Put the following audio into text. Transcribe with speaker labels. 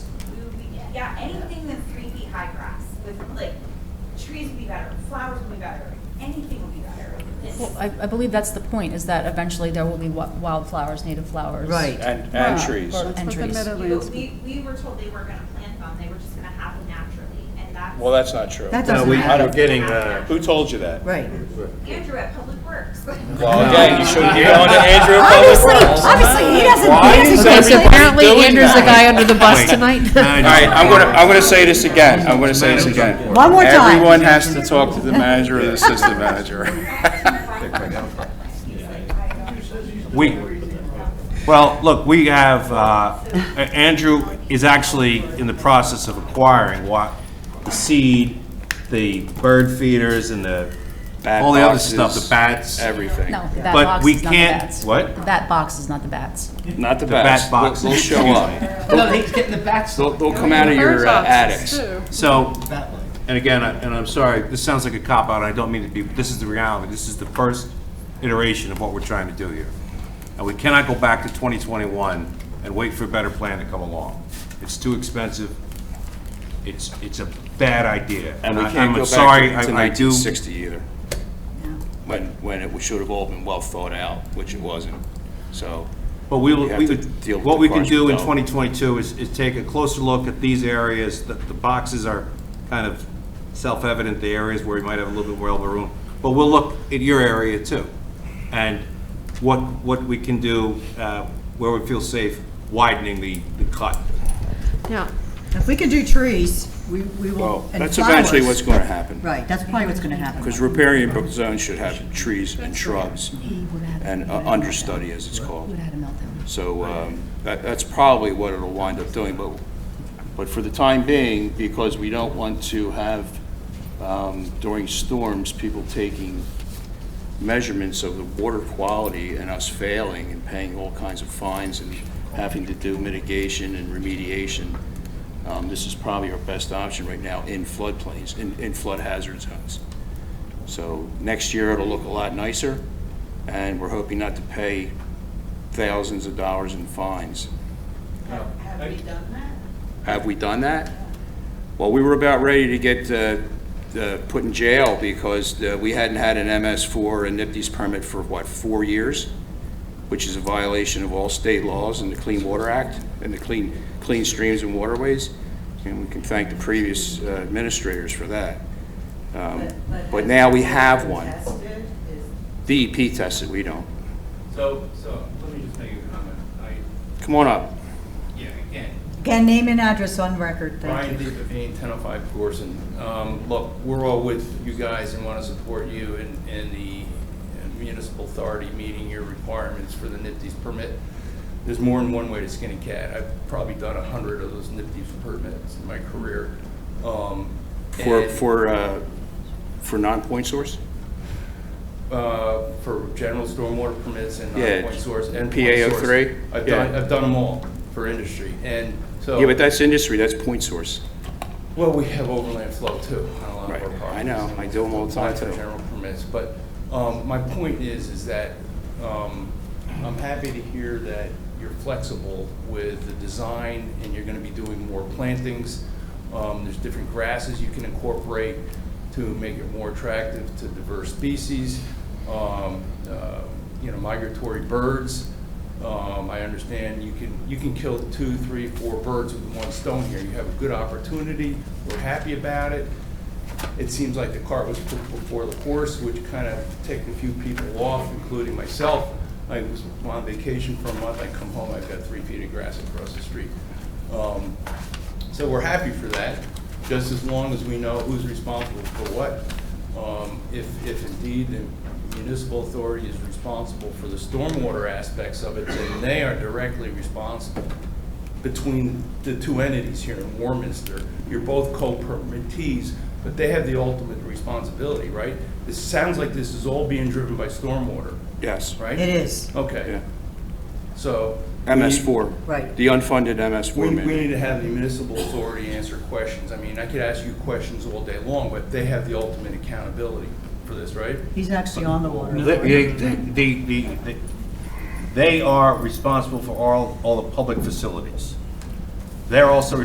Speaker 1: yeah, anything that's three feet high grass with like trees would be better, flowers would be better, anything would be better. It's-
Speaker 2: Well, I, I believe that's the point, is that eventually there will be wi- wildflowers, native flowers.
Speaker 3: Right.
Speaker 4: And, and
Speaker 2: Wow.
Speaker 4: trees.
Speaker 2: Or-
Speaker 3: That's what the
Speaker 2: entries.
Speaker 1: You know,
Speaker 3: Meadowlands-
Speaker 1: we, we were told they weren't gonna plant them, they were just gonna happen naturally, and that's.
Speaker 4: Well, that's not true.
Speaker 3: That
Speaker 5: No,
Speaker 3: doesn't
Speaker 5: we,
Speaker 4: matter.
Speaker 5: we're getting, uh,
Speaker 4: Who told you that?
Speaker 3: Right.
Speaker 1: Andrew at Public Works.
Speaker 4: Well, again, you should get on to Andrew at Public
Speaker 3: Obviously,
Speaker 4: Works.
Speaker 3: obviously, he doesn't.
Speaker 4: Why
Speaker 3: he
Speaker 4: is
Speaker 3: doesn't-
Speaker 4: every-
Speaker 3: okay, so-
Speaker 6: Apparently
Speaker 4: doing
Speaker 6: Andrew's the
Speaker 4: that?
Speaker 6: guy under the bus
Speaker 5: Wait.
Speaker 6: tonight.
Speaker 5: nine.
Speaker 4: All right, I'm gonna, I'm gonna say this again, I'm gonna say this again.
Speaker 3: One more time.
Speaker 4: Everyone has to talk to the manager or the assistant manager.
Speaker 5: We, well, look, we have, uh, A- Andrew is actually in the process of acquiring what, the seed, the bird feeders and the,
Speaker 4: Bat
Speaker 5: all the other stuff,
Speaker 4: boxes,
Speaker 5: the bats.
Speaker 4: Everything.
Speaker 2: No, that
Speaker 5: But
Speaker 2: box
Speaker 5: we
Speaker 2: is not the
Speaker 5: can't-
Speaker 2: bats.
Speaker 5: what?
Speaker 2: The Bat box is not the bats.
Speaker 4: Not the
Speaker 5: bat
Speaker 4: bats. They'll-
Speaker 5: boxes.
Speaker 4: They'll show up.
Speaker 7: No, he's getting the bats.
Speaker 4: They'll, they'll come out of your uh, attics.
Speaker 5: So, and again, I- and I'm sorry, this sounds like a cop-out, I don't mean to be, but this is the reality, this is the first iteration of what we're trying to do here. And we cannot go back to 2021 and wait for a better plan to come along. It's too expensive, it's, it's a bad idea.
Speaker 4: And we
Speaker 5: I-
Speaker 4: can't
Speaker 5: I'm
Speaker 4: go
Speaker 5: sorry,
Speaker 4: back
Speaker 5: I-
Speaker 4: to
Speaker 5: I do-
Speaker 4: nineteen sixty either. When, when it should have all been well thought out, which it wasn't, so.
Speaker 5: But we will,
Speaker 4: have
Speaker 5: we
Speaker 4: to deal
Speaker 5: could,
Speaker 4: with
Speaker 5: what
Speaker 4: the
Speaker 5: we can
Speaker 4: cars
Speaker 5: do in
Speaker 4: without.
Speaker 5: 2022 is, is take a closer look at these areas, the, the boxes are kind of self-evident, the areas where we might have a little bit more elbow room, but we'll look at your area too, and what, what we can do, uh, where we feel safe, widening the, the cut.
Speaker 3: Yeah. If we can do trees, we, we will.
Speaker 4: Well,
Speaker 3: and
Speaker 4: that's eventually what's
Speaker 3: flowers.
Speaker 4: going to happen.
Speaker 3: Right, that's probably what's gonna happen.
Speaker 4: Because riparian zones should have trees and shrubs and uh, understudy, as it's
Speaker 2: We
Speaker 4: called.
Speaker 2: would've had a meltdown.
Speaker 4: So um, that, that's probably what it'll wind up doing, but, but for the time being, because we don't want to have um, during storms, people taking measurements of the water quality and us failing and paying all kinds of fines and having to do mitigation and remediation, um, this is probably our best option right now in floodplains, in, in flood hazard zones. So next year, it'll look a lot nicer, and we're hoping not to pay thousands of dollars in fines.
Speaker 1: Have we done that?
Speaker 4: Have we done that? Well, we were about ready to get uh, uh, put in jail because uh, we hadn't had an MS4 and NIPD's permit for, what, four years? Which is a violation of all state laws and the Clean Water Act and the Clean, Clean Streams and Waterways. And we can thank the previous uh, administrators for that. Um, But now we have one. DEP tested, we don't.
Speaker 8: So, so, let me just make a comment. I,
Speaker 4: Come on up.
Speaker 8: yeah, again,
Speaker 3: Again, name and address on record, thank
Speaker 8: Brian
Speaker 3: you.
Speaker 8: DePavane, 1005 Gorson. oh Um, Look, we're all with you guys and want to support you in, in the municipal authority meeting your requirements for the NIPD's permit. There's more than one way to skin a cat. I've probably done 100 of those NIPD's permits in my career. Um,
Speaker 4: For,
Speaker 8: and,
Speaker 4: for, uh, for non-point source?
Speaker 8: uh, For general stormwater permits and
Speaker 4: Yeah,
Speaker 8: non-point source and point
Speaker 4: PA03?
Speaker 8: source. I've
Speaker 4: Yeah.
Speaker 8: done, I've done them all for industry, and so.
Speaker 4: Yeah, but that's industry, that's point source.
Speaker 8: Well, we have overland flow too on a lot of our
Speaker 4: Right. I
Speaker 8: properties.
Speaker 4: know. I do 'em all the time,
Speaker 8: Apply for
Speaker 4: too.
Speaker 8: general permits, but um, my point is, is that um, I'm happy to hear that you're flexible with the design and you're gonna be doing more plantings. Um, There's different grasses you can incorporate to make it more attractive to diverse species, um, uh, you know, migratory birds. Um, I understand you can, you can kill two, three, four birds with one stone here. You have a good opportunity. We're happy about it. It seems like the cart was put before the horse, which kind of ticked a few people off, including myself. I was on vacation for a month. I come home, I've got three feet of grass across the street. Um, so we're happy for that, just as long as we know who's responsible for what. Um, If, if indeed the municipal authority is responsible for the stormwater aspects of it, then they are directly responsible between the two entities here in Warminster. You're both co-permittees, but they have the ultimate responsibility, right? This sounds like this is all being driven by stormwater,
Speaker 4: Yes.
Speaker 8: right?
Speaker 3: It is,
Speaker 4: Yeah.
Speaker 8: Okay, so. we-
Speaker 4: MS4.
Speaker 3: Right.
Speaker 4: The unfunded MS4
Speaker 8: we, we
Speaker 4: mandate.
Speaker 8: need to have the municipal authority answer questions. I mean, I could ask you questions all day long, but they have the ultimate accountability for this, right?
Speaker 3: he's actually on the water.
Speaker 5: They, they- they- they- they are responsible for all, all the public facilities. They're also